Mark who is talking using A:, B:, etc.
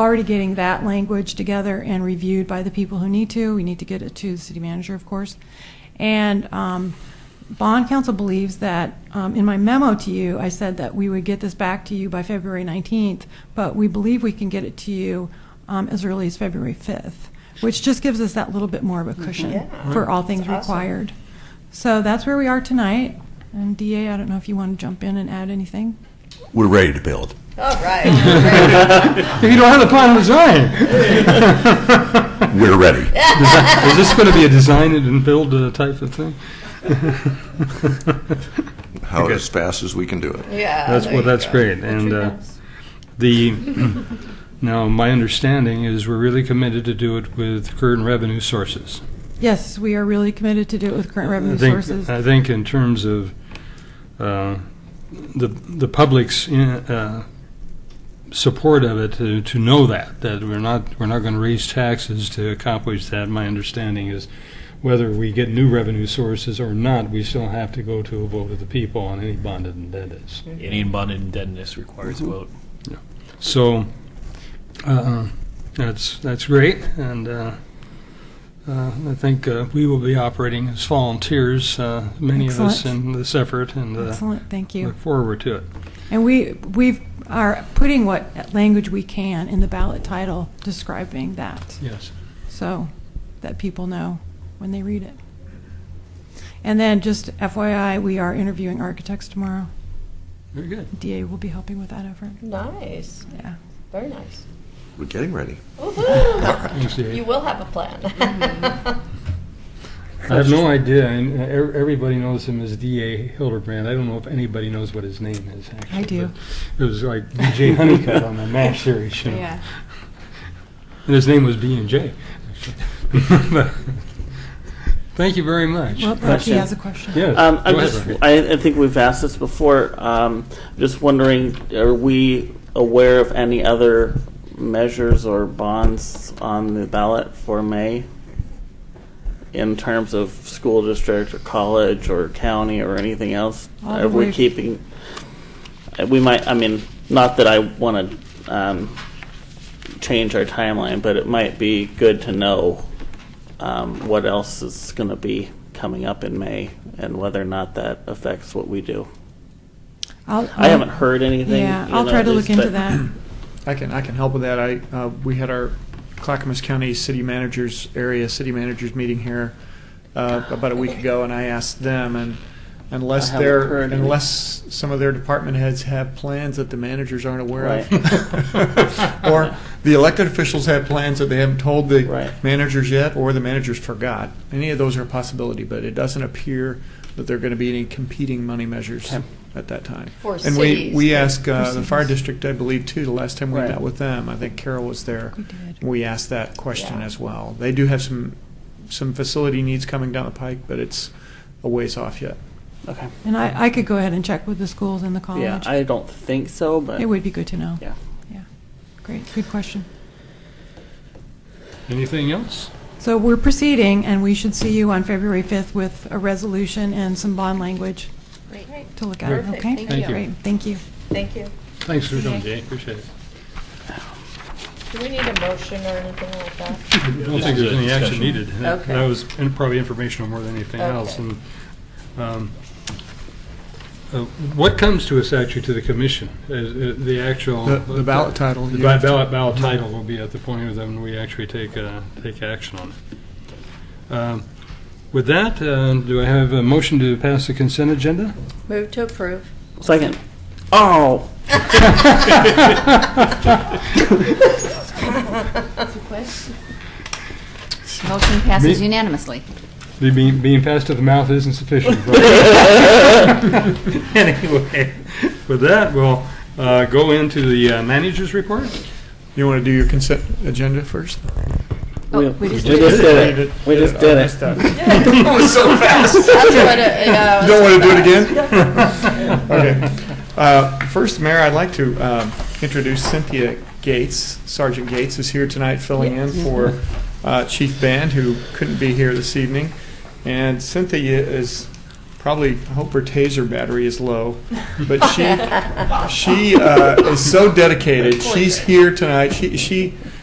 A: already getting that language together and reviewed by the people who need to. We need to get it to the city manager, of course. And um, bond council believes that, um, in my memo to you, I said that we would get this back to you by February 19th, but we believe we can get it to you um, as early as February 5th, which just gives us that little bit more of a cushion
B: Mm-hmm. Yeah.
A: for all things
B: That's awesome.
A: required. So that's where we are tonight. And DA, I don't know if you want to jump in and add anything?
C: We're ready to build.
B: All right.
D: If you don't have the plan to design.
C: We're ready.
D: Desi- Is this going to be a design it and build uh, type of thing?
C: How
D: Okay.
C: as fast as we can do it.
B: Yeah.
D: That's,
B: there
D: well,
B: you
D: that's
B: go.
D: great. And uh, the, now, my understanding is we're really committed to do it with current revenue sources.
A: Yes, we are really committed to do it with current revenue
D: I think-
A: sources.
D: I think in terms of uh, the, the public's uh, support of it, uh, to, to know that, that we're not, we're not going to raise taxes to accomplish that, my understanding is whether we get new revenue sources or not, we still have to go to a vote of the people on any bonded indebtedness.
E: Any bonded indebtedness requires a vote.
D: So, uh, that's, that's great, and uh, uh, I think uh, we will be operating as volunteers, uh, many of us
A: Excellent.
D: in this effort, and uh,
A: Excellent, thank you.
D: look forward to it.
A: And we, we are putting what language we can in the ballot title describing that,
D: Yes.
A: so that people know when they read it. And then, just FYI, we are interviewing architects tomorrow.
D: Very good.
A: DA will be helping with that effort,
B: Nice.
A: yeah.
B: Very nice.
C: We're getting ready.
B: Woohoo!
D: Thanks, Dave.
B: You will have a plan.
D: I have no idea, and uh, ev- everybody knows him as D.A. Hildebrand. I don't know if anybody knows what his name is, actually.
A: I do.
D: but It was like D.J. Honeycutt on the MASH series, you know. And his name was B&J. actually. Thank you very much.
A: Well, Rocky
F: Question.
A: has a question.
D: Yes,
F: Um, I'm
D: go ahead,
F: just,
D: Roger.
F: I, I think we've asked this before. Um, just wondering, are we aware of any other measures or bonds on the ballot for May in terms of school district or college or county or anything else?
A: All the
F: are we
A: way-
F: keeping? uh, We might. I mean, not that I want to um, change our timeline, but it might be good to know um, what else is going to be coming up in May and whether or not that affects what we do.
A: I'll-
F: I haven't heard anything.
A: Yeah,
F: you
A: I'll
F: know,
A: try to
F: at
A: look
F: least,
A: into
F: but-
A: that.
G: I can, I can help with that. I, uh, we had our Clackamas County City Managers Area City Managers meeting here uh, about a week ago, and I asked them, and unless
F: I haven't
G: they're,
F: heard any.
G: unless some of their department heads have plans that the managers aren't aware of,
D: Right.
G: or the elected officials have plans that they haven't told the
F: Right.
G: managers yet, or the managers forgot. Any of those are a possibility, but it doesn't appear that there are going to be any competing money measures
F: Okay.
G: at that time.
B: For
G: And we,
B: cities.
G: we asked uh, the fire
A: cities.
G: district, I believe, too, the last time we
F: Right.
G: met with them. I think Carol was there.
A: We did.
G: We asked that question
B: Yeah.
G: as well. They do have some, some facility needs coming down the pike, but it's a ways off yet.
F: Okay.
A: And I, I could go ahead and check with the schools and the
F: Yeah,
A: college.
F: I don't think so, but
A: It would be good to know.
F: yeah.
A: Yeah, great, good question.
D: Anything else?
A: So we're proceeding, and we should see you on February 5th with a resolution and some bond language
B: Great.
A: to look at,
D: Perfect,
A: okay?
B: thank
D: you.
A: Great, thank you.
B: Thank you.
D: Thanks for coming, Jay. Appreciate it.
B: Do we need a motion or anything like that?
D: I don't think there's any action needed.
B: Okay.
D: That was in- probably informational more than anything else.
B: Okay.
D: And um, uh, What comes to us actually to the commission, is uh, the actual...
G: The- the ballot title,
D: The
G: you
D: ba-
G: have to-
D: ballot, ballot title will be at the point of when we actually take, uh, take action on it. Um, With that, uh, do I have a motion to pass the consent agenda?
B: Move to approve.
F: Second. Oh,
H: Motion passes unanimously.
D: The Being, being passed to the mouth isn't sufficient. right? Anyway, with that, we'll uh, go into the uh, manager's report.
G: You want to do your consent agenda first?
H: Oh,
F: we,
H: we
F: we
H: just
F: just
H: did
F: did it. We just did
G: I
F: it.
G: missed that.
B: That's what it, yeah.
G: You don't want to do it again? Okay. Uh, First, Mayor, I'd like to um, introduce Cynthia Gates. Sergeant Gates is here tonight filling in for uh, Chief Band, who couldn't be here this evening. And Cynthia is probably, I hope her taser battery is low. But she, she uh, is so dedicated. She's here tonight. She, she